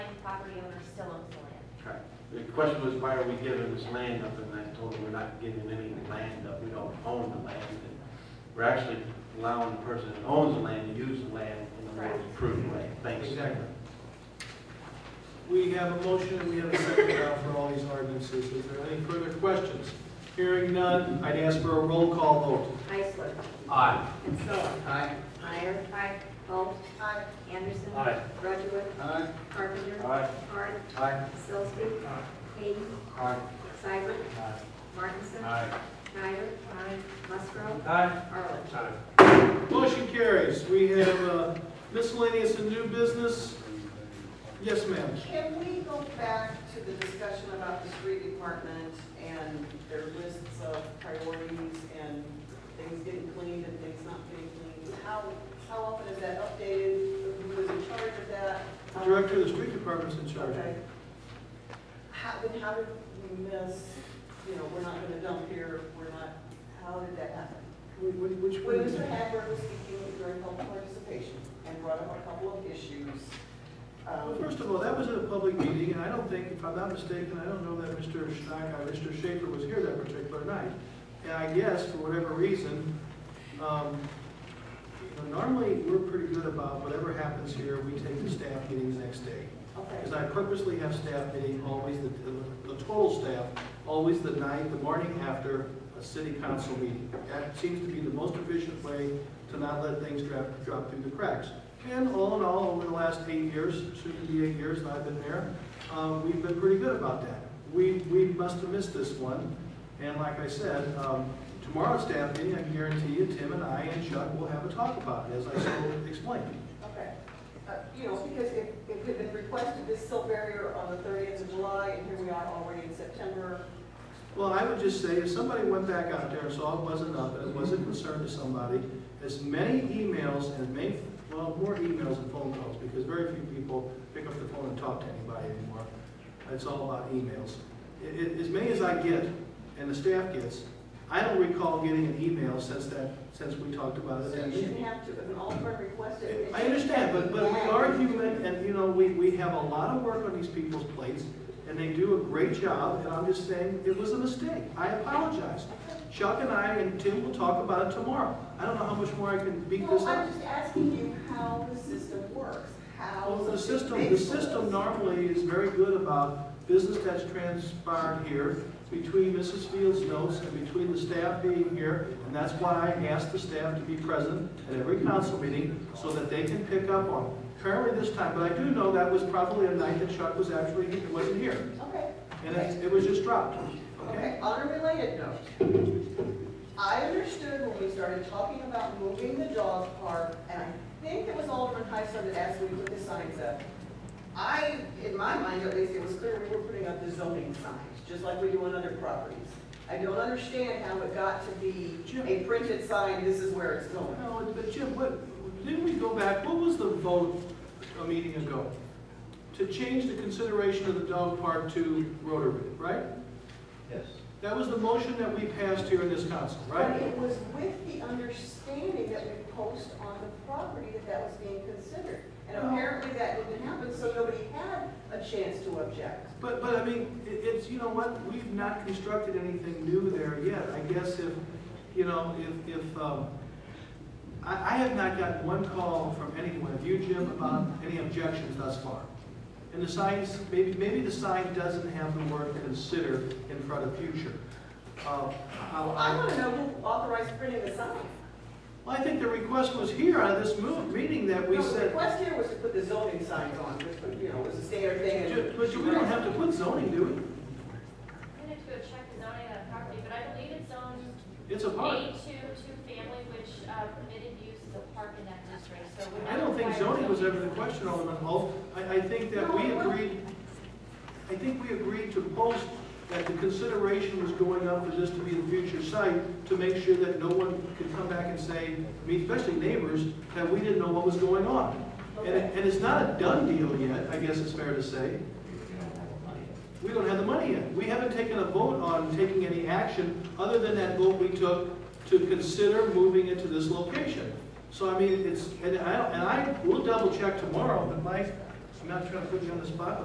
property owner still owns the land. Right. The question was, why are we giving this land up? And I told them we're not giving any land up. We don't own the land. And We're actually allowing the person that owns the land to use the land in the most Correct. prudent way. Thanks. Exactly. We have a motion, and we have a second now for all these ordinances. Is there any further questions? Hearing none, I'd ask for a roll call vote. Heisler. Aye. Kinsella. Aye. Meyer. Aye. Holt. Aye. Anderson. Aye. Rudowitz. Aye. Carpenter. Aye. Hart. Aye. Sillsby. Hayden. Aye. Cybert. Aye. Martinson. Aye. Schneider. Aye. Musgrove. Aye. Arlen. Motion carries. We have uh, miscellaneous and new business. Yes, ma'am. Can we go back to the discussion about the street department and their lists of priorities and things getting cleaned and things not getting cleaned? How, how often is that updated? Who is in charge of that? The Director of the Street Department's in charge. Okay. How, then how did we miss, you know, we're not gonna dump here, we're not, how did that happen? Wh- wh- Which When one? Mr. Hagberg was speaking during public participation and brought up a couple of issues, Uh, Well, um, First of all, that was at a public meeting, and I don't think, if I'm not mistaken, I don't know that Mr. Schneck, uh, Mr. Schaefer was here that particular night. And I guess, for whatever reason, um, you know, normally, we're pretty good about whatever happens here, we take the staff meetings next day. okay. Because I purposely have staff meeting always, the, the- the total staff, always the night, the morning after a city council meeting. That seems to be the most efficient way to not let things drop, drop through the cracks. And all in all, over the last eight years, soon to be eight years that I've been there, uh, we've been pretty good about that. We, we must have missed this one, and like I said, um, tomorrow's staff meeting, I guarantee you, Tim and I and Chuck will have a talk about it, as I so explained. Okay, Uh, you know, because if, if it had been requested this silt barrier on the thirtieth of July, and here we are already in September, Well, I would just say, if somebody went back out there and saw it wasn't up, and it was a concern to somebody, as many emails and many, well, more emails and phone calls, because very few people pick up the phone and talk to anybody anymore. It's all about emails. I- I- As many as I get, and the staff gets, I don't recall getting an email since that, since we talked about it. at so you that meeting. shouldn't have to, if an alderman requested. it, it I understand, but, but we shouldn't are be human, and, you know, we, we have a lot of work on these people's plates, and they do a great job, and I'm just saying, it was a mistake, I apologize. Chuck and I and Tim will talk about it tomorrow, I don't know how much more I can beat this No, up. I'm just asking you how the system works, how. Well, the something system, the fixed system was. normally is very good about business that's transpired here, between Mrs. Fields' notes and between the staff being here, and that's why I asked the staff to be present at every council meeting, so that they can pick up on it. Currently this time, but I do know that was probably a night that Chuck was actually, wasn't here, Okay, and it, it was just dropped, okay? okay, on a related note, I understood when we started talking about moving the dog park, and I think it was Alderman Heisler that asked me to put the signs up. I, in my mind at least, it was clear we were putting up the zoning signs, just like we do on other properties. I don't understand how it got to be a printed sign, this is where it's going. No, but Jim, what, didn't we go back, what was the vote a meeting ago? To change the consideration of the dog park to Rotary, right? Yes. That was the motion that we passed here in this council, But right? it was with the understanding that we post on the property that that was being considered. And Oh. apparently that didn't happen, so nobody had a chance to object. But, but I mean, it, it's, you know what, we've not constructed anything new there yet. I guess if, you know, if, if, um, I, I have not gotten one call from anyone, of you, Jim, about any objections thus far. And the signs, maybe, maybe the sign doesn't have the word consider in front of future. Uh, Well, I, I I, want to know who authorized printing the sign. well, I think the request was here on this move, meeting that we No, The said, request here was to put the zoning signs on, which, was, you know, was a standard thing. Ju- and- but we don't have to put zoning, do we? I'm gonna have to go check the zoning on the property, but I believe it's zoned It's a park. A two, two family, which uh, permitted use of the park in that district, so. it would I don't think require zoning was ever the question, Alderman Holt. I, I think that we agreed, I think we agreed to post that the consideration was going up for this to be the future site to make sure that no one could come back and say, I mean, especially neighbors, that we didn't know what was going on. And, it- and it's not a done deal yet, I guess it's fair to say. We don't have the money yet. We haven't taken a vote on taking any action other than that vote we took to consider moving it to this location. So I mean, it's, and I, and I will double check tomorrow, but Mike, I'm not trying to put you on the spot,